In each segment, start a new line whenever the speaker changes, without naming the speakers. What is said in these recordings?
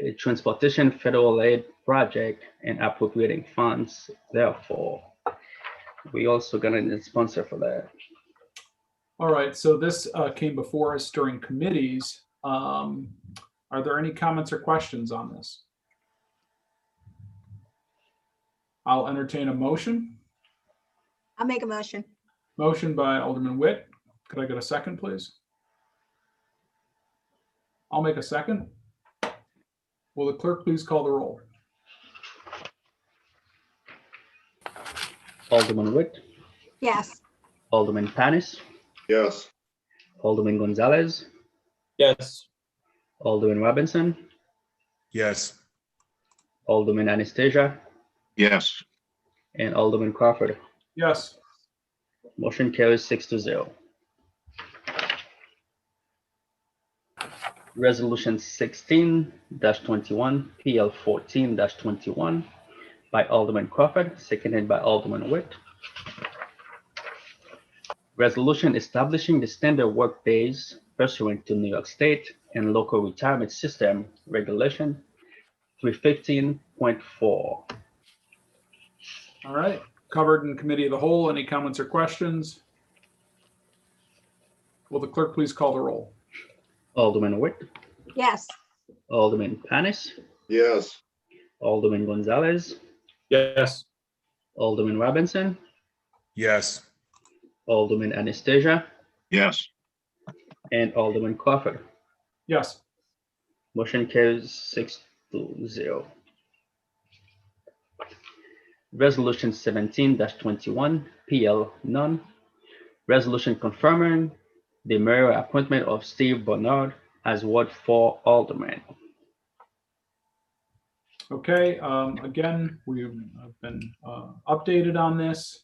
a transportation federal aid project and appropriating funds therefore. We also gonna need a sponsor for that.
All right, so this uh, came before us during committees. Um, Are there any comments or questions on this? I'll entertain a motion.
I'll make a motion.
Motion by Alderman Witt. Could I get a second, please? I'll make a second. Will the clerk please call the roll?
Alderman Witt,
Yes,
Alderman Panis,
Yes.
Alderman Gonzalez,
Yes.
Alderman Robinson,
Yes.
Alderman Anastasia,
Yes.
and Alderman Crawford.
Yes,
Motion carries six to zero. Resolution sixteen twenty-one, PL fourteen twenty-one by Alderman Crawford, seconded by Alderman Witt. Resolution establishing the standard work days pursuant to New York State and local retirement system regulation three fifteen point four.
all right. Covered in committee of the whole. Any comments or questions? Will the clerk please call the roll?
Alderman Witt,
yes,
Alderman Panis,
Yes.
Alderman Gonzalez,
Yes.
Alderman Robinson,
Yes.
Alderman Anastasia,
Yes.
and Alderman Crawford.
Yes.
Motion carries six to zero. Resolution seventeen twenty-one, PL none. Resolution confirming the mayor appointment of Steve Bernard as Ward Four Alderman.
Okay, um, again, we've I've been uh, updated on this.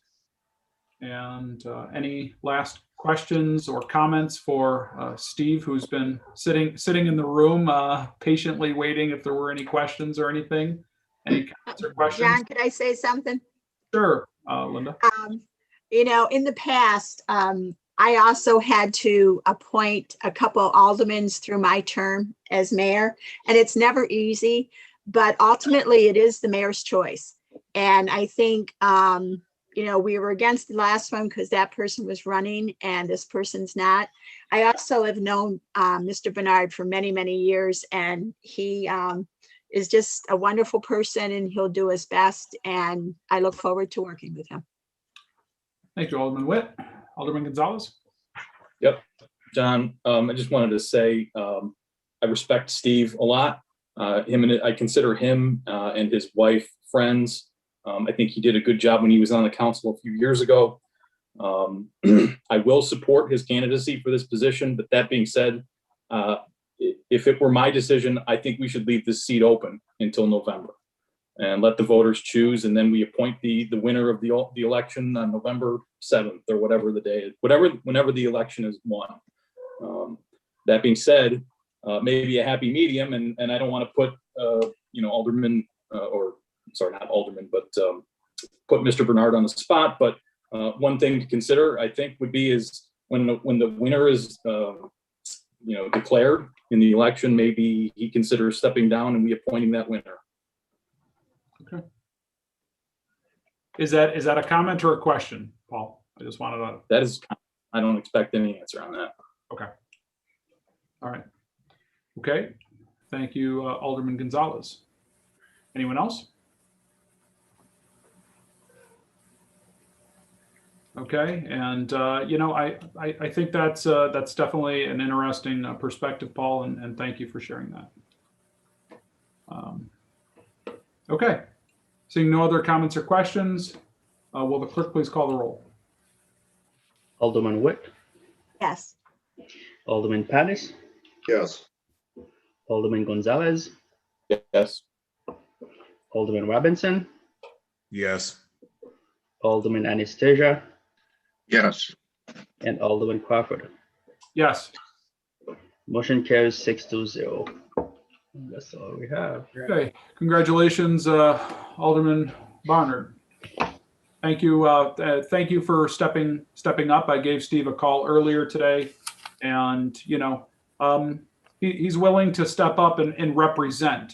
And uh, any last questions or comments for uh, Steve, who's been sitting, sitting in the room uh, patiently waiting if there were any questions or anything? Any comments or questions?
John, could I say something?
Sure, uh, Linda.
Um, you know, in the past, um, I also had to appoint a couple aldermans through my term as mayor, and it's never easy, but ultimately it is the mayor's choice. And I think, um, you know, we were against the last one because that person was running and this person's not. I also have known, uh, Mr. Bernard for many, many years, and he, um, is just a wonderful person and he'll do his best, and I look forward to working with him.
Thank you, Alderman Witt. Alderman Gonzalez?
John, um, I just wanted to say, um, I respect Steve a lot. Uh, him and I consider him, uh, and his wife friends. Um, I think he did a good job when he was on the council a few years ago. Um, I will support his candidacy for this position, but that being said, uh, i- if it were my decision, I think we should leave this seat open until November. And let the voters choose, and then we appoint the, the winner of the, el- the election on November seventh or whatever the day, whatever, whenever the election is won. Um, That being said, uh, maybe a happy medium, and, and I don't want to put, uh, you know, Alderman, uh, or, sorry, not Alderman, but um, put Mr. Bernard on the spot, but uh, one thing to consider, I think, would be is when, the- when the winner is, uh, you know, declared in the election, maybe he considers stepping down and we appointing that winner.
Is that, is that a comment or a question, Paul? I just wanted to,
That is, I don't expect any answer on that.
all right. Okay, thank you, uh, Alderman Gonzalez. Anyone else? Okay, and, uh, you know, I, I, I think that's, uh, that's definitely an interesting uh, perspective, Paul, and, and thank you for sharing that. Um, Okay, seeing no other comments or questions, uh, will the clerk please call the roll?
Alderman Witt,
Yes,
Alderman Panis,
Yes.
Alderman Gonzalez,
Yes.
Alderman Robinson,
Yes.
Alderman Anastasia,
Yes.
and Alderman Crawford.
Yes.
Motion carries six to zero. That's all we have.
Okay, congratulations, uh, Alderman Barnard. Thank you, uh, uh, thank you for stepping, stepping up. I gave Steve a call earlier today. And, you know, um, he, he's willing to step up and, and represent.